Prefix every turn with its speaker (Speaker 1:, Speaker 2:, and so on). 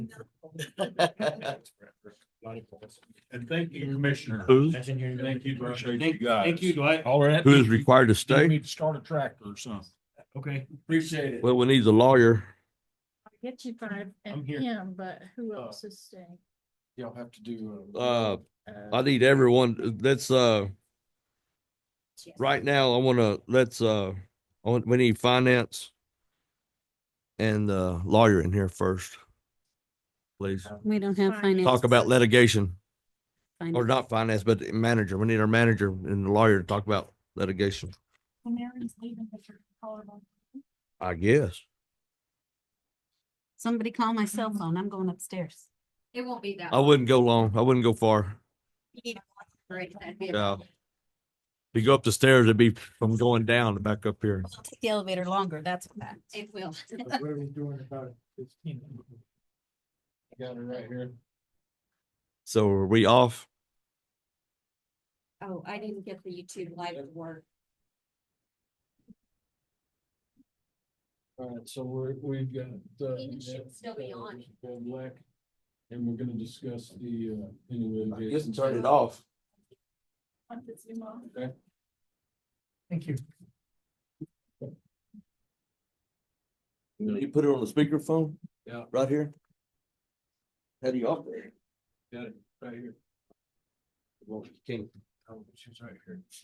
Speaker 1: And thank you, Commissioner.
Speaker 2: Who?
Speaker 1: Thank you, appreciate you
Speaker 3: Thank-
Speaker 1: guys.
Speaker 3: Thank you, Dwight.
Speaker 1: All right.
Speaker 2: Who is required to
Speaker 1: You
Speaker 2: stay?
Speaker 1: need to start a tractor or something.
Speaker 3: Okay, appreciate it.
Speaker 2: Well, we need a lawyer.
Speaker 4: I'll Get you five
Speaker 3: I'm
Speaker 4: and
Speaker 3: here.
Speaker 4: him, but who
Speaker 3: Oh.
Speaker 4: else is staying?
Speaker 3: Y'all have to do.
Speaker 2: Uh, I
Speaker 4: Uh,
Speaker 2: need everyone, let's, uh,
Speaker 4: yes.
Speaker 2: right now, I wanna, let's, uh, I want- we need finance and, uh, lawyer in here first. Please,
Speaker 5: We don't have
Speaker 4: Finance.
Speaker 5: finance.
Speaker 2: talk about litigation, or
Speaker 5: finance.
Speaker 2: not finance, but manager. We need our manager and the lawyer to talk about litigation,
Speaker 4: Well, Mary's leaving, but you're calling on-
Speaker 2: I guess.
Speaker 5: Somebody call my cell phone. I'm going upstairs.
Speaker 6: It won't be that.
Speaker 2: I wouldn't go long. I wouldn't go far.
Speaker 6: great. That'd be
Speaker 2: Yeah.
Speaker 6: a-
Speaker 2: If you go up the stairs, it'd be from going down to back up here.
Speaker 5: I'll take the elevator longer, that's what.
Speaker 6: It will.
Speaker 3: What are we doing about it? Fifteen. Got it right here.
Speaker 2: So are we off?
Speaker 6: Oh, I didn't get the YouTube live to work.
Speaker 3: All right, so we're, we've got. uh,
Speaker 6: It should still be on.
Speaker 3: uh, Black, and we're gonna discuss the, uh. any litigation.
Speaker 2: off.
Speaker 4: on the Zoom on.
Speaker 3: Thank you.
Speaker 2: You put it on the speakerphone?
Speaker 3: Yeah.
Speaker 2: Right here? How do you operate?
Speaker 3: Right here.
Speaker 2: Well, you can't
Speaker 3: Oh, she's right here.